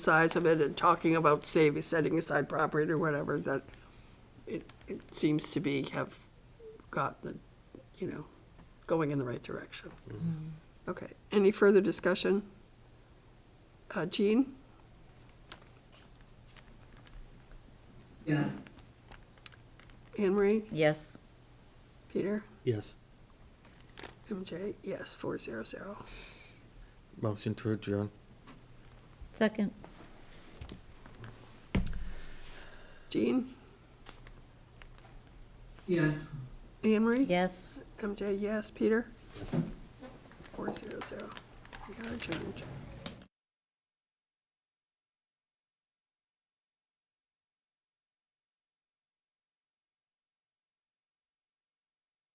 size of it and talking about saving, setting aside property or whatever, that it, it seems to be have got the, you know, going in the right direction. Okay, any further discussion? Uh, Jean, Yes. Anne Marie, Yes. Peter, Yes. MJ, yes, four zero zero. Motion to adjourn. Second? Jean, Yes. Anne Marie? Yes. MJ, yes, Peter? Four zero zero. We are adjourned.